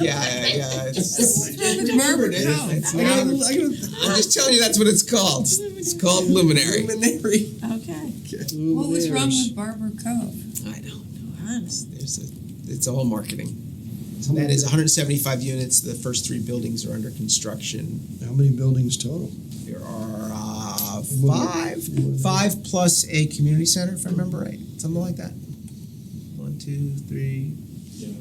Yeah, yeah, it's, It's murmured it. It's I gotta, not- I gotta, I'm just telling you that's what it's called. It's called luminary. luminary. Okay. What was wrong with Barber Cove? I don't know. Honestly, there's a, it's all marketing. That is 175 units. The first three buildings are under construction. How many buildings total? There are uh, five, five plus a community center, if I remember right, something like that. One, two, three,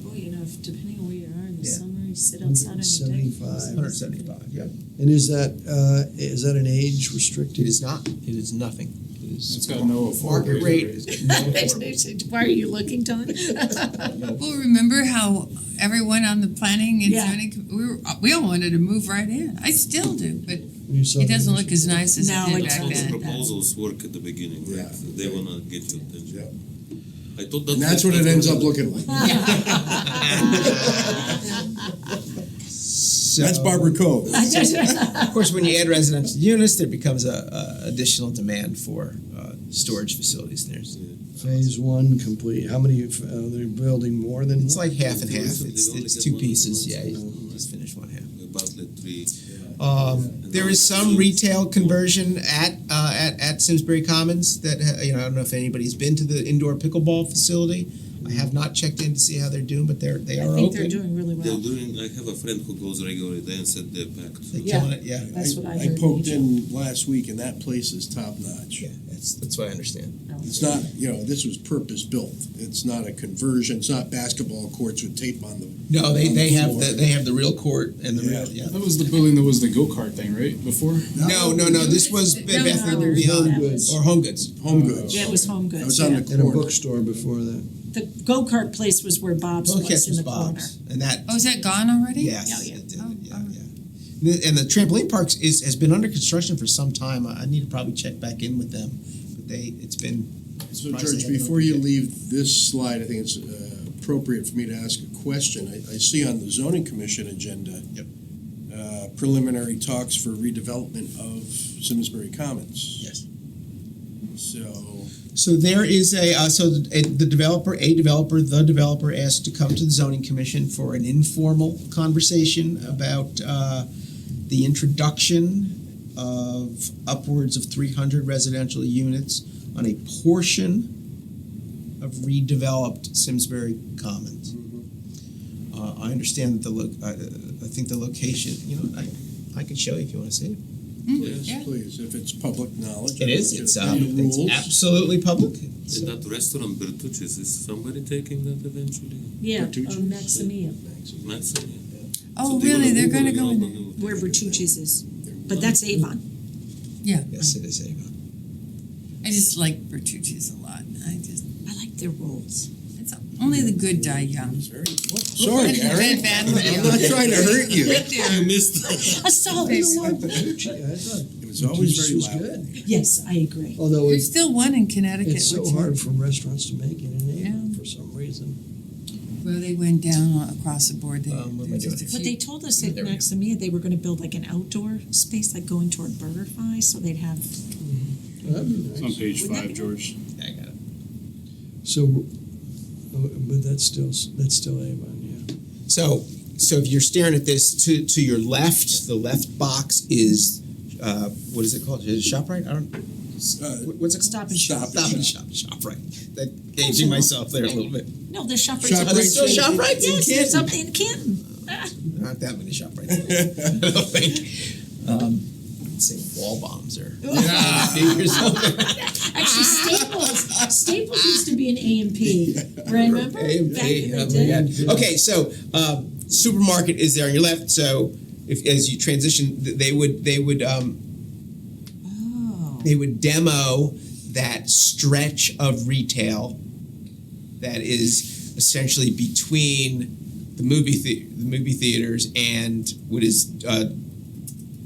Boy, you know, if, depending on where you are in the Yeah. summer, you sit outside on your deck. 175. 175. Yeah, And is that, uh, is that an age it restricted? is not. It is nothing. It is It's got no market affordable rate. No affordable. Why are you looking, Don? Well, remember how everyone on the planning and Yeah. zoning, com- we were, we all wanted to move right in. I still do, but You saw it doesn't the- look as nice as No, it did it's back All the not. then. proposals work at the beginning, right? Yeah. So They wanna get your attention. I thought that. And that's what it ends up looking like. So- That's Barber Cove. Of course, when you add residential units, there becomes a, a additional demand for uh, storage facilities. There's Phase one complete. How many, f- uh, they're building more than? it's one? like half and half. It's, it's two pieces. Yeah, you just finish one half. Bartlett three. Um, there is some retail conversion at uh, at at Simsbury Commons that uh, you know I don't know if anybody's been to the indoor pickleball facility. I have not checked in to see how they're doing, but they're they I are think open. they're doing really They're well. doing, I have a friend who goes regularly there and said they're packed. They're Yeah. killing it. Yeah, That's what I heard. I poked in last week and that place is top notch. yeah. That's that's what I understand. It's not, you know, this was purpose built. It's not a conversion. It's not basketball courts with tape on them. No, they, On the they have floor. the they have the real court and the real yeah. That was the building that was the go kart thing, right? Before? No, no, no. This was Bed Oh, No, Bath no, and there's Beyond that was- or Home Goods. Home Goods. Yeah, it was Home That Goods, was on yeah. the In a corner. bookstore before that. The go-kart place was where Bob's Well, was in the corner. Bob's, and that Oh, is that gone already? yes, yeah. it did, Oh, yeah, all right. yeah. The- And the trampoline parks is has been under construction for some time. I I need to probably check back in with them, but they it's been So Surprised they George, haven't before you opened leave this slide, I think it's uh, appropriate for me to ask a question. I, I see on the zoning commission agenda. Yep. Uh, preliminary talks for redevelopment of Simsbury Commons. yes. So, So there is a uh, so the, a- the developer, a developer, the developer asked to come to the zoning commission for an informal conversation about uh, the introduction of upwards of 300 residential units on a portion of redeveloped Simsbury Commons. Uh, I understand that the look. I, I think the location. You know, I, I can show you if you want to see it. Hmm, Yeah. yes, please, if it's public knowledge. I'd like to It's uh, um, know the it's rules. absolutely public. And that restaurant Bertucci's, is somebody taking that eventually? Yeah, Bertucci's? um, Maximia, Maxim, yeah. Oh, So they wanna really? They're move gonna it go in on there? and do it. where Bertucci's is, but that's Avon. Yeah. Yes, it is Avon. I just like Bertucci's a lot. I just, I like their rolls. it's only the good die young. Sorry, Karen. Bed Bath and I'm not Beyond. trying to hurt you. Right there. You missed. A solid It roll. It was always very loud. Yes, I agree. Although There's it's, still one in Connecticut, it's which, so well, hard for restaurants to make it in Avon Yeah. for some reason. they went down across the board. They- Um, what am I there's just doing a But few- they told us at There we go. Maximia they were gonna build like an outdoor space, like going toward BurgerFi, so they'd have Well, that'd be It's nice. on page Wouldn't that five, be- George. I got it. So, uh, but that's still, that's still Avon, yeah. So, so if you're staring at this, to to your left, the left box is, uh, what is it called? Is it Shoprite? I don't. Uh, what- What's it called? Stop and Shop. Stop and shop. Shoprite. That gauging myself there a little bit. No, there's shop Shop Are there still Shoprite. Shoprites in Yes, there's Canton? something in Canton. Ah, Not that many Shoprites. I don't think. Um, I'd say wall bombs or. Actually, Staples, Staples used to be an A and P, remember? Back in the Oh day. my God. Okay, so um, supermarket is there on your left. So if as you transition, th- they would they would um, Oh, they would demo that stretch of retail that is essentially between the movie the- the movie theaters and what is uh,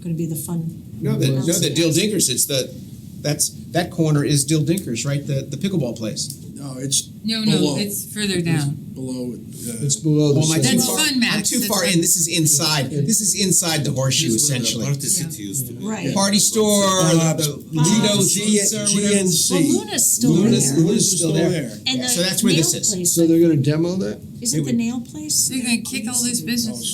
gonna be the fun. no the, no the Dill Dinkers. It's the that's that corner is Dill Dinkers, right? The the pickleball place. No, it's No, no, Below. it's further down. below, uh, It's below the. Oh, am I too sidewalk. That's far? fun, I'm Max. too That's far fun. in. This is inside. This is inside the horseshoe This is where the essentially. Party City used to be. Right. Party store, Bob's, the Lido's G- Pizza or whatever. GNC. Well, Luna's still Luna's- there. Luna's still there. And Yeah, the so that's where nail this is. place, So they're gonna demo that? Is it the nail place? They're gonna kick all this business.